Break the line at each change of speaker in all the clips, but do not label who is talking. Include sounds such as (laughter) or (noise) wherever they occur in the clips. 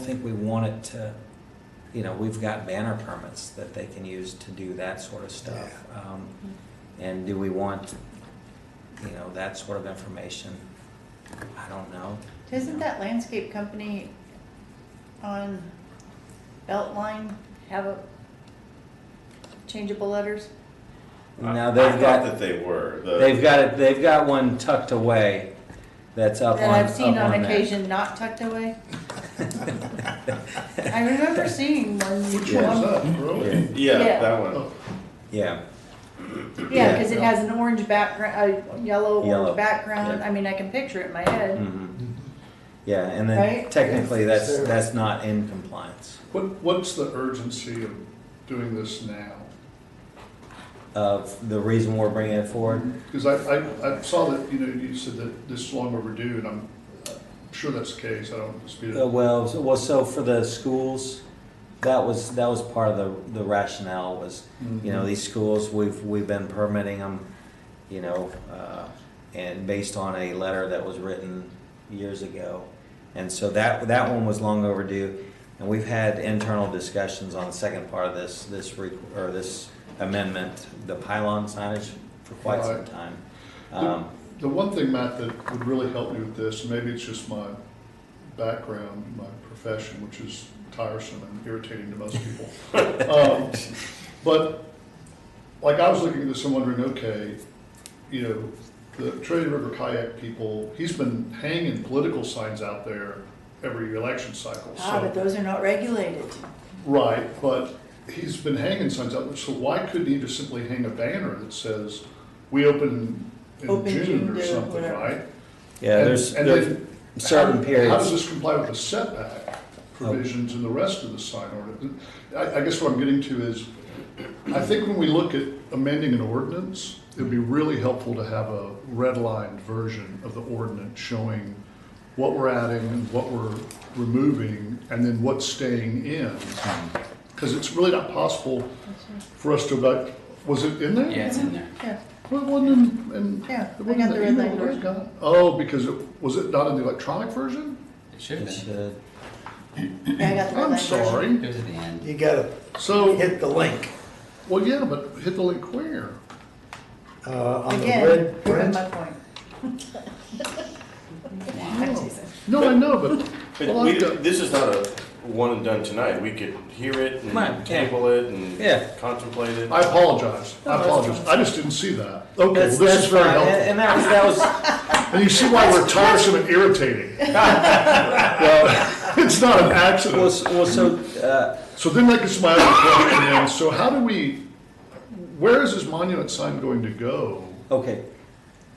think we want it to, you know, we've got banner permits that they can use to do that sort of stuff. Um, And do we want, you know, that sort of information? I don't know.
Doesn't that landscape company on Beltline have a changeable letters?
Now,
I- I
they've
thought
got,
that they were. The-
they've got, it. they've got one tucked away that's up on,
That I've seen
up
on
there. (laughs)
occasion not tucked away? I
(laughs)
remember seeing one.
Which one's
one-
up, really?
Yeah,
Yeah.
that one.
Oh,
Yeah,
Yeah,
Yeah.
because it has an orange background, a yellow
Yellow,
orange background.
yeah.
I mean, I can picture it in my head.
mhm. yeah, and then
Right?
technically, that's,
So-
that's not in compliance
What, what's the urgency of doing this now?
of the reason we're bringing it forward.
Because I, I, I saw that, you know, you said that this is long overdue, and I'm sure that's the case, I don't dispute
Uh,
it.
Well, so- well, so for the schools, that was, that was part of the, the rationale was,
Hmm.
you
Mm-hmm.
know, these schools, we've, we've been permitting them, you know, uh, and based on a letter that was written years ago. And so that, that one was long overdue, and we've had internal discussions on the second part of this, this, re- or this amendment, the pylon signage for quite some
Right.
time. Um,
The one thing, Matt, that would really help me with this, and maybe it's just my background, my profession, which is tiresome and irritating to most people. Um, But, like, I was looking at this and wondering, okay, you know, the Trinity River kayak people, he's been hanging political signs out there every election cycle, so.
Ah, but those are not regulated.
Right, but he's been hanging signs out there, so why couldn't he just simply hang a banner that says, we open in
Open
June
June
or
to
something,
whatever.
right?
Yeah,
And-
there's,
and
there's
then
certain
how- How does
periods.
this comply with the setback provisions in the rest of the sign ordinance? I, I guess what I'm getting to is, I think when we look at amending an ordinance, it'd be really helpful to have a redlined version of the ordinance showing what we're adding, what we're removing, and then what's staying in. Because it's really not possible for us to, like, was it in there?
Yeah, it's in there.
Yeah,
Well, it wasn't in, in.
Yeah,
it
I got
wasn't
the
in
red
email
line
that I
version.
got. Oh, because it, was it not in the electronic version?
It should have
It's,
been.
uh,
Yeah, I got the red
I'm
line version.
It
sorry.
was at the end.
You gotta
So,
hit the link,
well, yeah, but hit the link where?
uh, on the
Again,
red
proving (laughs)
print.
my point. I'm teasing.
No, I know, but, well,
But we,
I've got-
this is not a one and done tonight. We could hear it and
Right, yeah.
table it and
Yeah.
contemplate it.
I apologize.
No,
I
that's
apologize. I just didn't see that. Okay, well,
That's,
this
that's
is very
fine, and
helpful.
and that was, that was,
And you see why we're tiresome
(laughs)
and irritating. Well, It's not an accident. (laughs)
was, was so, uh,
So then that gets my other question in. So how do we, where is this monument sign going to go?
uh, okay.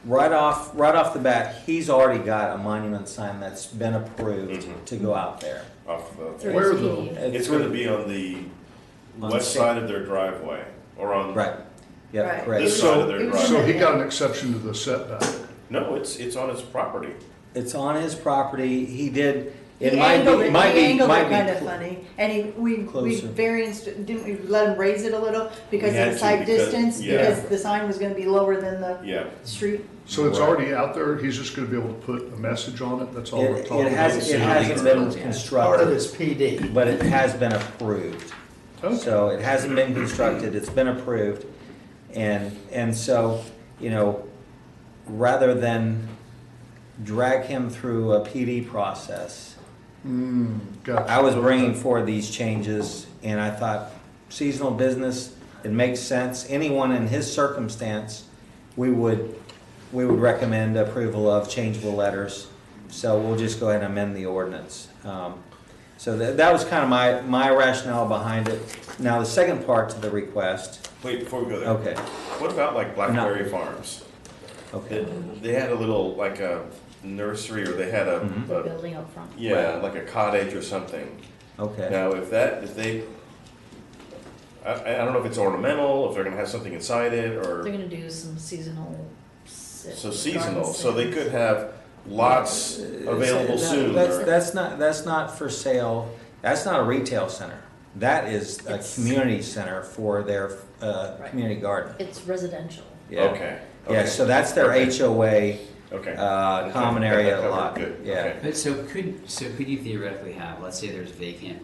Right off, right off the bat, he's already got a monument sign that's been approved
Mm-hmm.
Mhm.
to go out there.
Off the,
Through
Where
SPD.
though?
it's going to be on the
On
west
the-
side of their driveway or on
Right, yeah,
Right.
this
correct.
side of their
It was-
driveway.
So he got an exception to the setback.
No, it's it's on his property.
It's on his property, he did,
He
it might
angled
be,
it,
might
he
be,
angled
might
it
be.
kind of
cl-
funny, and he, we, we
Closer.
variance, didn't we let him raise it a little because
We
of
had
the
to
side
because-
distance?
yeah.
Because the sign was gonna be lower than the
Yeah.
street?
So it's
Right.
already out there, he's just gonna be able to put a message on it, that's all we're
It,
talking
it
about?
hasn't, it
Yeah.
hasn't been
Part of
constructed,
it's PD.
but it has been approved.
Okay.
So it hasn't been constructed, it's been approved. And, and so, you know, rather than drag him through a PD process,
Hmm, gotcha.
I was bringing forward these changes and I thought seasonal business, it makes sense. Anyone in his circumstance, we would, we would recommend approval of changeable letters. So we'll just go ahead and amend the ordinance. Um, So that, that was kind of my, my rationale behind it. Now, the second part to the request,
Wait, before we go there,
okay,
what about like Blackberry Farms? They,
okay.
they had a little like a nursery or they had a,
Mhm.
a-
building up front.
yeah like a cottage or something.
Okay,
Now, if that, if they, I, I don't know if it's ornamental, if they're gonna have something inside it,
They're
or,
gonna do some seasonal. sit-
so
garden
seasonal, so they
sales.
could have lots available
Uh, That-
soon.
That's,
or-
that's not, that's not for sale, that's not a retail center. That is a
It's-
community center for their, uh,
Right.
community garden.
It's residential.
Yeah.
Okay.
Yeah,
okay.
so that's their
Okay.
HOA
Okay.
uh, common
Okay, got that
area
covered.
lot,
Good,
yeah.
okay.
But so could, so could you theoretically have, let's say there's vacant